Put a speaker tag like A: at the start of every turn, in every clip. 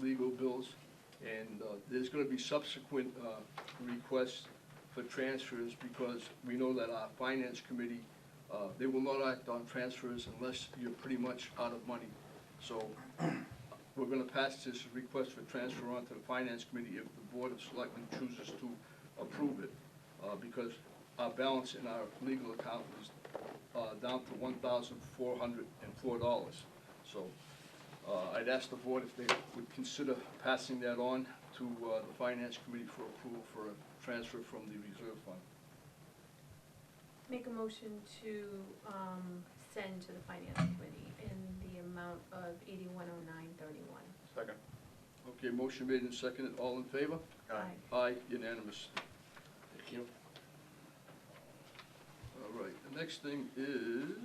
A: legal bills, and uh, there's gonna be subsequent uh, requests for transfers, because we know that our finance committee, uh, they will not act on transfers unless you're pretty much out of money. So we're gonna pass this request for transfer on to the finance committee if the board of selectmen chooses to approve it, uh, because our balance in our legal account is, uh, down to one thousand four hundred and four dollars. So, uh, I'd ask the board if they would consider passing that on to, uh, the finance committee for approval for a transfer from the reserve fund.
B: Make a motion to, um, send to the finance committee in the amount of eighty-one oh nine thirty-one.
C: Second. Uh,
A: Okay, motion made and seconded, all in favor?
B: Aye.
A: Aye, unanimous. Thank you. All right, the next thing is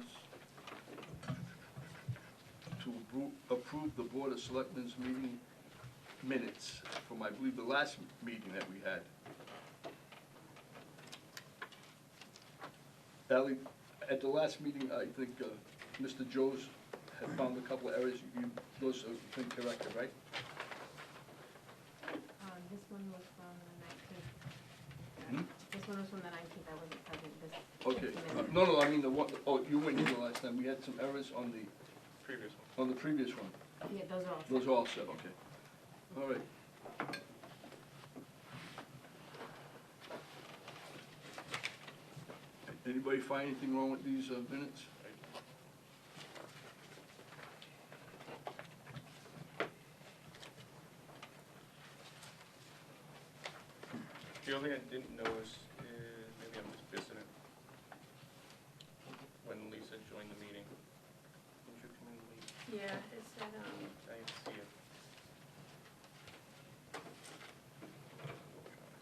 A: to appro- approve the Board of Selectmen's meeting minutes from, I believe, the last meeting that we had. Ally, at the last meeting, I think, uh, Mr. Joes had found a couple of errors, you, those have been corrected, right?
D: Um, this one was from the nineteenth.
A: Hmm?
D: This one was from the nineteenth, I wasn't present, this.
A: Okay,
D: this
A: Uh,
D: minute.
A: no, no, I mean the one, oh, you went in the last time, we had some errors on the,
C: Previous
A: on
C: one.
A: the previous one.
D: Yeah, those are all.
A: Those are all set, okay. All right. Anybody find anything wrong with these uh, minutes?
C: The only thing I didn't notice is, maybe I'm just missing it. When Lisa joined the meeting. Did you come in late?
B: Yeah, it said, um,
C: I didn't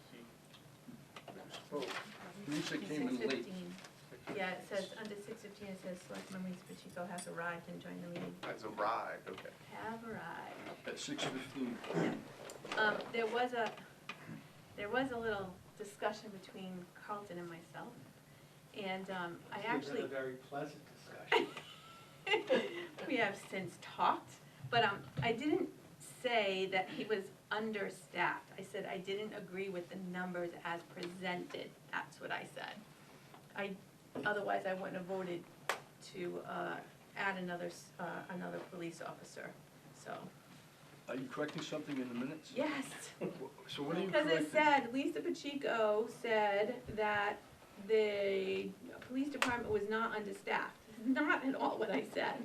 C: see it. See,
A: Lisa came in
B: six
A: late.
B: fifteen.
C: six.
B: Yeah, it says, under six fifteen, it says, Selectman Reese Pacheco has arrived and joined the meeting.
C: That's arrived, okay.
B: Have arrived.
A: At six fifteen.
B: Um, there was a, there was a little discussion between Carlton and myself, and, um, I actually.
E: It's been a very pleasant discussion.
B: We have since talked, but, um, I didn't say that he was understaffed. I said I didn't agree with the numbers as presented. That's what I said. I, otherwise I wouldn't have voted to, uh, add another, s- uh, another police officer, so,
A: Are you correcting something in the minutes?
B: yes.
A: So what are you
B: Because
A: correcting?
B: it said, Lisa Pacheco said that the police department was not understaffed. Not at all what I said.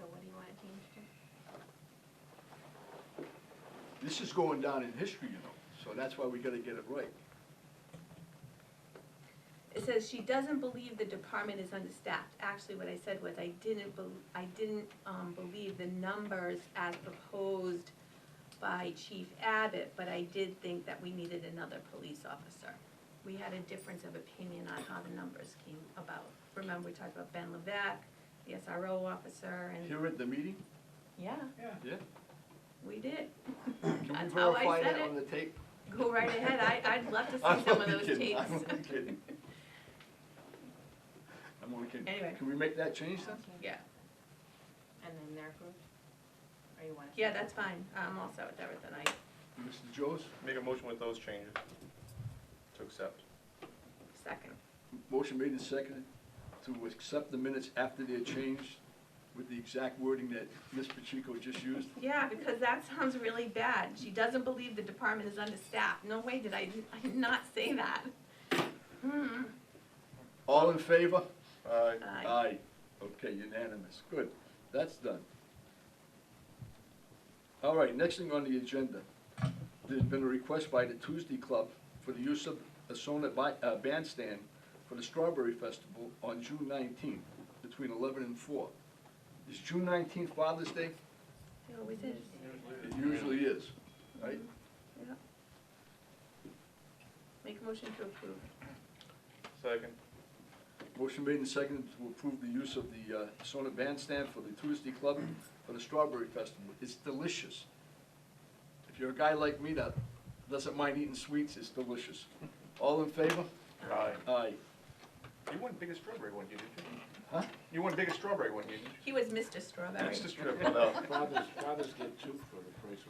D: So what do you wanna change to?
A: This is going down in history, you know, so that's why we gotta get it right.
B: It says she doesn't believe the department is understaffed. Actually, what I said was I didn't bel I didn't, um, believe the numbers as proposed by Chief Abbott, but I did think that we needed another police officer. We had a difference of opinion on how the numbers came about. Remember, we talked about Ben Levesque, the SRO officer, and,
A: Here at the meeting,
B: yeah,
E: Yeah.
A: yeah?
B: we did.
A: Can we
B: That's how I
A: verify
B: said
A: that
B: it.
A: on the tape?
B: Go right ahead, I, I'd love to see some of those tapes.
A: I'm only kidding. I'm only kidding.
B: Anyway.
A: Can we make that change then?
D: Okay.
B: Yeah,
D: And then they're approved? Or you wanna?
B: yeah, that's fine, I'm all set with everything, I
A: Mr. Joes,
C: Make a motion with those changes. To accept.
B: second.
A: motion made and seconded to accept the minutes after they're changed with the exact wording that Ms. Pacheco just used.
B: Yeah, because that sounds really bad. She doesn't believe the department is understaffed. No way did I, I did not say that. Hmm,
A: All in favor?
C: Uh,
B: I-
A: Aye. Okay, unanimous. Good. That's done. All right, next thing on the agenda. There's been a request by the Tuesday Club for the use of a Sonnet bi- uh, bandstand for the Strawberry Festival on June nineteenth, between eleven and four. Is June nineteenth Father's Day?
B: It always is.
A: It usually is, right?
B: Make a motion to approve.
C: Second.
A: Motion made and seconded to approve the use of the uh, Sonnet bandstand for the Tuesday Club for the Strawberry Festival. It's delicious. If you're a guy like me that doesn't mind eating sweets, it's delicious. All in favor?
C: Aye.
A: Aye.
C: You won biggest strawberry one, year, didn't you?
A: Huh?
C: You won biggest strawberry one, year, didn't you?
B: He was Mr. Strawberry.
C: That's the strawberry.
E: Fathers, fathers get two for the price of